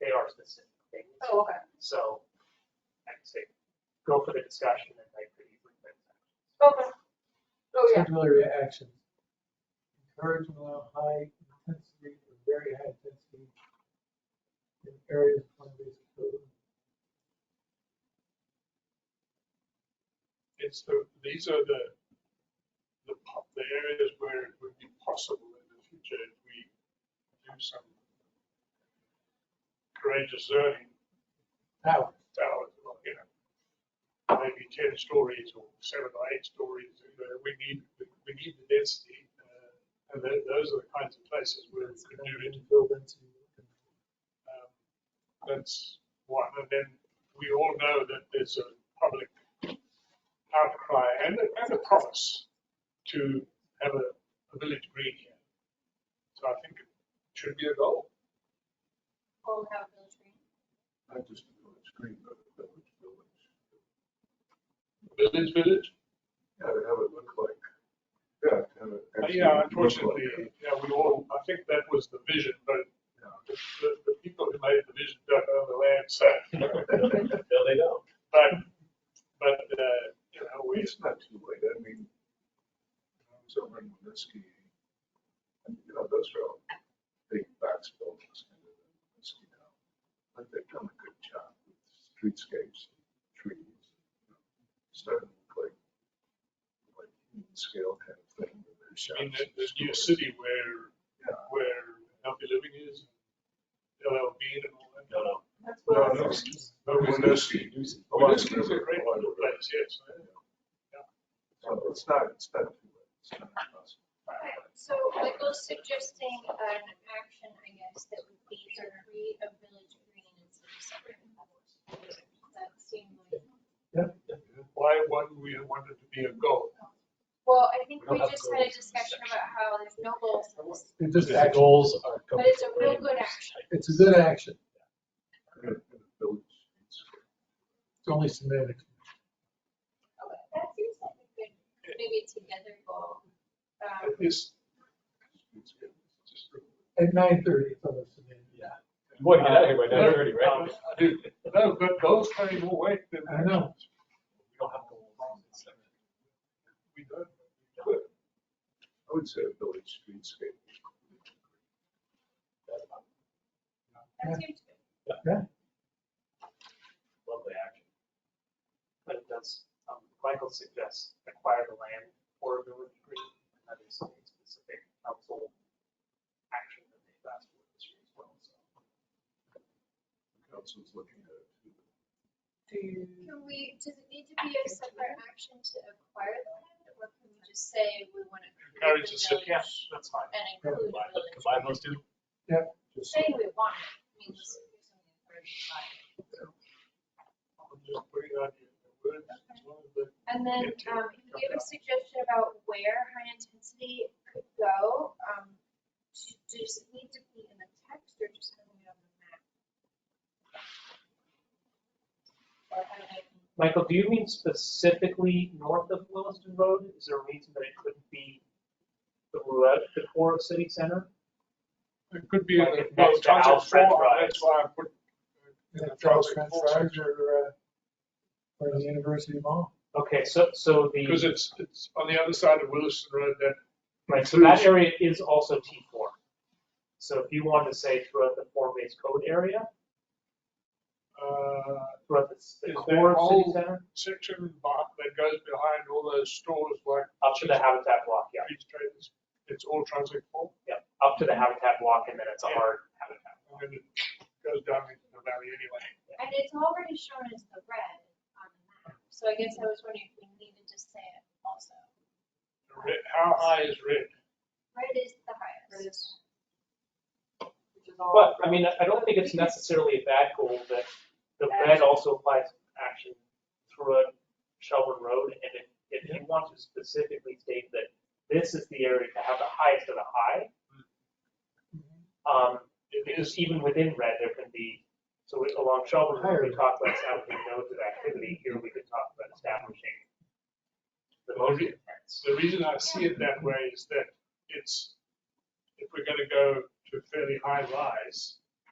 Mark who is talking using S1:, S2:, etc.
S1: they are specific things.
S2: Oh, okay.
S1: So I'd say go for the discussion and like the transactions.
S2: Okay. Oh, yeah.
S3: Similar action. Encourage and allow high intensity or very high intensity in areas of plant-based food.
S4: It's the, these are the, the, po- the areas where it would be possible in the future if we do some courageous zoning. How? Towers, well, you know, maybe ten stories or seven or eight stories, you know, we need, we need the density. uh, And tho- those are the kinds of places where we could do it.
S3: Build into.
S4: Um, That's one, and then we all know that there's a public outcry and a, and a promise to have a, a village green here. So I think it should be a goal.
S2: Oh, we have a village green.
S5: I just know it's green, but the village, village.
S4: Village, village?
S5: Yeah, to have it look like, yeah, to have it.
S4: Uh,
S5: actually
S4: Yeah,
S5: look
S4: unfortunately,
S5: like
S4: yeah, we all, I think that was the vision, but the, the- the people who made the vision don't own the land, so.
S6: No, they don't.
S4: But, but, uh, you know,
S5: a-
S4: we,
S5: It's not too late, I mean, I was over in Winesky, and, you know, those are all big box buildings. and they're in Winooski now. But they've done a good job with streetscapes, trees, you know, starting to look like, like human scale kind of thing. with
S4: I
S5: their
S4: mean,
S5: shops
S4: the-
S5: and
S4: the new
S5: stores.
S4: city where
S5: Yeah.
S4: where healthy living is, LLB and all that.
S6: No, no.
S2: That's
S5: No,
S2: what.
S5: no.
S4: No, Winooski. Oh,
S5: A lot of
S4: Winooski's a
S5: river,
S4: great
S5: a lot of
S4: little
S5: river.
S4: place, yes.
S5: So it's not, it's not too late. It's not impossible.
S7: Okay, So Michael's suggesting an action, I guess, that would be to create a village green in city center. That seemed like,
S4: Why wouldn't we want it to be a goal?
S7: well, I think
S6: We don't
S7: we
S6: have
S7: just
S6: goals
S7: had a
S6: in this
S7: discussion
S6: section.
S7: about how there's no goals in this.
S3: It just,
S6: The goals are.
S7: But it's a real good
S6: completely
S7: action.
S3: it's a good action.
S5: Village, it's-
S3: It's only semantic.
S7: Okay, That seems like a good, maybe together goal. Um,
S4: It's,
S5: it's good. It's just river.
S3: At nine thirty, it's almost semantic.
S6: Yeah. You want to get out of here by nine thirty,
S4: Um,
S6: right?
S4: I do. No, but goals carry more weight than.
S3: I know.
S6: We don't have goals. It's like-
S4: We don't.
S5: But I would say a village streetscape.
S7: That seems good.
S6: Lovely action.
S1: But it does, um, Michael suggests acquire the land or a village green, and that is a specific council action that they've asked for this year as well, so.
S5: The Council's looking at it. too.
S7: Can we, does it need to be a separate action to acquire the land? Or can we just say we want to create a
S4: Encourage the city.
S7: village
S1: That's fine.
S7: and include
S6: Combine
S7: village?
S6: combine those two.
S5: Just
S7: Say we want it, means there's something for everybody.
S4: I'm just putting out the words, as long as the-
S7: And then, um, he gave a suggestion about where high intensity could go, um, to- does it need to be in the text or just having it on the map? Or how did I,
S1: Michael, do you mean specifically north of Williston Road? Is there a reason that it couldn't be the road, the core of city center?
S4: It could be. a-
S1: Like it
S4: well,
S1: goes to
S4: Transit
S1: Al's French
S4: four,
S1: fries.
S4: That's why I put. uh, you know,
S3: Yeah, Charles French
S4: Transit four
S3: Fryers
S4: section.
S3: or, uh, or the University Mall.
S1: Okay, so, so the.
S4: Because it's, it's on the other side of Williston Road that.
S1: Right, so that area is also T4. So if you wanted to say throughout the form-based code area,
S4: Uh,
S1: throughout the s- the
S4: Is
S1: core
S4: that
S1: of city
S4: whole-
S1: center,
S4: section but that goes behind all those stores like
S1: up to the habitat block, yeah,
S4: these traders, it's all transit four,
S1: yeah, up to the habitat block, and then it's a
S4: Yeah.
S1: hard habitat.
S4: and then it goes down into the valley anyway.
S7: and it's already shown as the red on the map, so I guess I was wondering if we needed to say it also.
S4: Red- How high is red?
S7: Red is the highest.
S2: Which is all.
S1: But, I mean, I- I don't think it's necessarily a bad goal that the red also applies action throughout Shelburne Road, and if, if you want to specifically state that this is the area to have the highest of the high, um,
S4: It
S1: Because
S4: is,
S1: even within red, there can be, so we- along Shelburne, Road, we
S3: Higher.
S1: talk about establishing nodes of activity, here we could talk about establishing the modes of events.
S4: the reason I see it that way is that it's, if we're gonna go to fairly high rise,